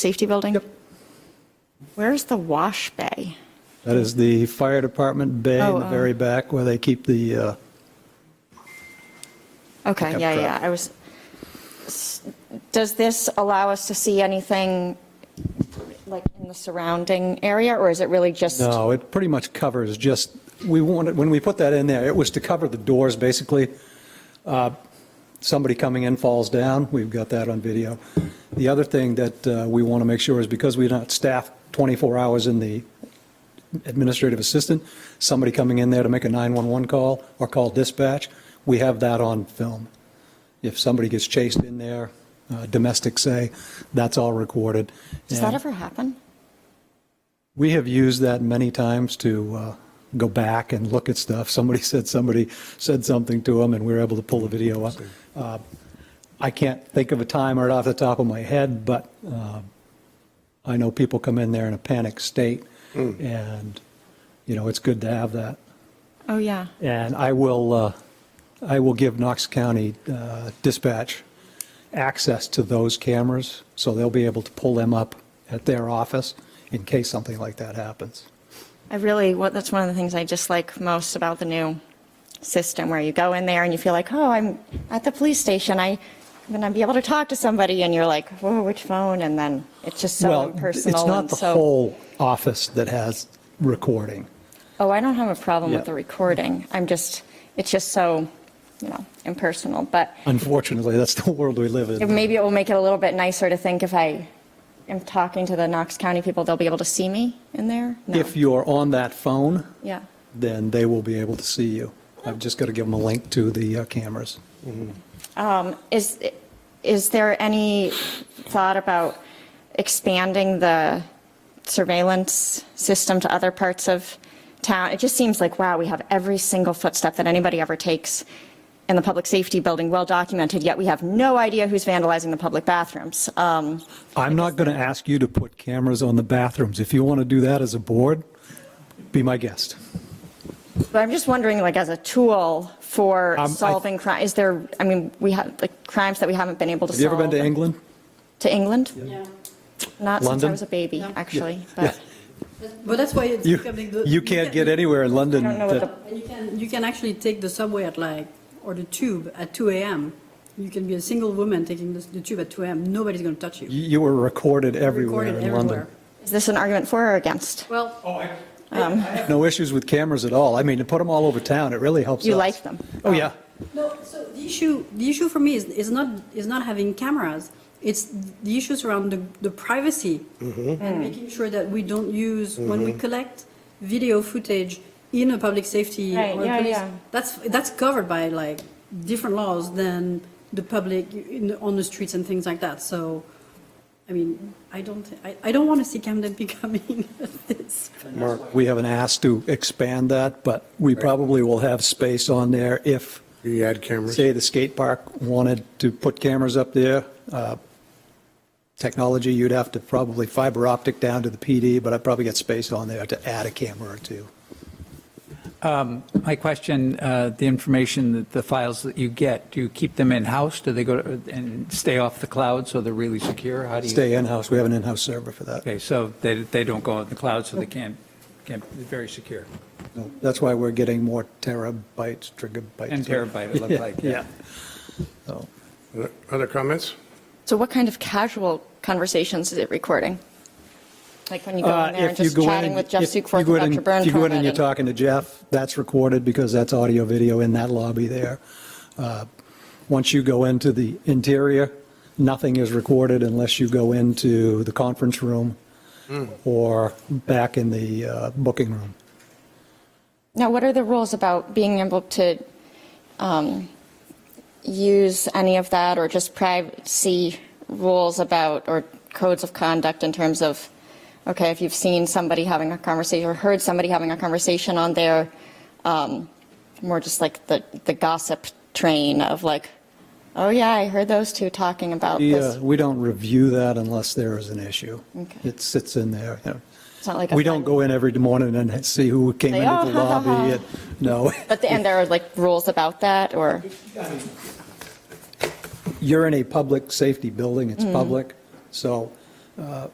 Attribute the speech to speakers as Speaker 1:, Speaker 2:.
Speaker 1: Safety building? Where's the wash bay?
Speaker 2: That is the fire department bay in
Speaker 1: Oh,
Speaker 2: the
Speaker 1: oh.
Speaker 2: very back where they keep the, uh,
Speaker 1: Okay,
Speaker 2: Pickup
Speaker 1: yeah,
Speaker 2: truck.
Speaker 1: yeah, I was, s- does this allow us to see anything like in the surrounding area, or is it really just?
Speaker 2: no, it pretty much covers just, we wanted, when we put that in there, it was to cover the doors, basically. Uh, Somebody coming in falls down, we've got that on video. The other thing that uh, we want to make sure is because we're not staffed 24 hours in the administrative assistant, somebody coming in there to make a 911 call or call dispatch, we have that on film. If somebody gets chased in there, uh, domestic say, that's all recorded.
Speaker 1: Does that
Speaker 2: And-
Speaker 1: ever happen?
Speaker 2: We have used that many times to uh, go back and look at stuff. Somebody said, somebody said something to them, and we were able to pull the video up. Uh, I can't think of a time right off the top of my head, but um, I know people come in there in a panic state, and, you know, it's good to have that.
Speaker 1: Oh, yeah.
Speaker 2: And I will, uh, I will give Knox County uh, Dispatch access to those cameras, so they'll be able to pull them up at their office in case something like that happens.
Speaker 1: I really, what, that's one of the things I dislike most about the new system, where you go in there and you feel like, oh, I'm at the police station, I, I'm gonna be able to talk to somebody, and you're like, whoa, which phone, and then it's just so
Speaker 2: Well,
Speaker 1: impersonal.
Speaker 2: It's not
Speaker 1: and
Speaker 2: the
Speaker 1: so-
Speaker 2: whole office that has recording.
Speaker 1: Oh, I don't have a problem with
Speaker 2: Yeah.
Speaker 1: the recording, I'm just, it's just so, you know, impersonal, but
Speaker 2: Unfortunately, that's the world we live
Speaker 1: it-
Speaker 2: in.
Speaker 1: maybe it will make it a little bit nicer to think if I am talking to the Knox County people, they'll be able to see me in there? No.
Speaker 2: If you're on that phone,
Speaker 1: Yeah,
Speaker 2: then they will be able to see you. I've just got to give them a link to the uh, cameras.
Speaker 1: is, is there any thought about expanding the surveillance system to other parts of town? It just seems like, wow, we have every single footstep that anybody ever takes in the public safety building well documented, yet we have no idea who's vandalizing the public bathrooms. Um,
Speaker 2: I'm not going to ask you to put cameras on the bathrooms. If you want to do that as a board, be my guest.
Speaker 1: But I'm just wondering, like, as a tool for
Speaker 2: Um, I-
Speaker 1: solving crime, is there, I mean, we have, like, crimes that we haven't been able to
Speaker 2: Have
Speaker 1: solve?
Speaker 2: you ever been to England?
Speaker 1: To England?
Speaker 3: Yeah.
Speaker 1: Not since I
Speaker 2: London?
Speaker 1: was a baby,
Speaker 3: No.
Speaker 1: actually, but
Speaker 3: But that's why it's
Speaker 2: You,
Speaker 3: becoming the.
Speaker 2: you can't get anywhere in London.
Speaker 1: I don't know what
Speaker 2: that-
Speaker 1: the,
Speaker 3: And you can, you can actually take the subway at like, or the tube at 2 AM. You can be a single woman taking the, the tube at 2 AM, nobody's going to touch you.
Speaker 2: You you were recorded everywhere
Speaker 3: Recorded
Speaker 2: in London.
Speaker 3: everywhere.
Speaker 1: is this an argument for or against?
Speaker 3: Well,
Speaker 1: Um,
Speaker 2: No issues with cameras at all. I mean, to put them all over town, it really helps
Speaker 1: You
Speaker 2: us.
Speaker 1: like them?
Speaker 2: Oh, yeah.
Speaker 3: no, so the issue, the issue for me is, is not, is not having cameras. It's the issues around the, the privacy and making sure that we don't use, when we collect video footage in a public safety.
Speaker 1: Right,
Speaker 3: or a
Speaker 1: yeah,
Speaker 3: police-
Speaker 1: yeah.
Speaker 3: That's, that's covered by like different laws than the public in, on the streets and things like that. So, I mean, I don't, I, I don't want to see Camden becoming this.
Speaker 2: We haven't asked to expand that, but we probably will have space on there if,
Speaker 4: You add cameras.
Speaker 2: say, the skate park wanted to put cameras up there. Uh, Technology, you'd have to probably fiber optic down to the PD, but I'd probably get space on there to add a camera or two.
Speaker 5: My question, uh, the information, that the files that you get, do you keep them in-house? Do they go to- and stay off the cloud so they're really secure? How do you?
Speaker 2: Stay in-house, we have an in-house server for that.
Speaker 5: Okay, so they, they don't go on the cloud, so they can't, can't, they're very secure.
Speaker 2: That's why we're getting more terabytes, gigabytes.
Speaker 5: 10 terabyte, it looked like.
Speaker 2: Yeah. So,
Speaker 4: Other comments?
Speaker 1: So what kind of casual conversations is it recording? Like when you go
Speaker 2: Uh,
Speaker 1: in there and
Speaker 2: if you
Speaker 1: just
Speaker 2: go in
Speaker 1: chatting
Speaker 2: and-
Speaker 1: with Jeff
Speaker 2: if you
Speaker 1: Sukforth
Speaker 2: go in
Speaker 1: about
Speaker 2: and-
Speaker 1: your burn
Speaker 2: If you go in and
Speaker 1: permit
Speaker 2: you're
Speaker 1: and-
Speaker 2: talking to Jeff, that's recorded because that's audio video in that lobby there. Uh, Once you go into the interior, nothing is recorded unless you go into the conference room or back in the uh, booking room.
Speaker 1: Now, what are the rules about being able to um, use any of that or just privacy rules about or codes of conduct in terms of, okay, if you've seen somebody having a conversation or heard somebody having a conversation on there, um, more just like the, the gossip train of like, oh yeah, I heard those two talking about
Speaker 2: We, uh,
Speaker 1: this.
Speaker 2: We don't review that unless there is an issue.
Speaker 1: Okay.
Speaker 2: It sits in there. you know.
Speaker 1: It's not like a
Speaker 2: We
Speaker 1: fun-
Speaker 2: don't go in every morning and see who came
Speaker 1: Say,
Speaker 2: into
Speaker 1: "Oh,
Speaker 2: the
Speaker 1: ha, ha,
Speaker 2: lobby.
Speaker 1: ha."
Speaker 2: and- No.
Speaker 1: But the, and there are like rules about that or,
Speaker 2: you're in a public safety building, it's public, so uh,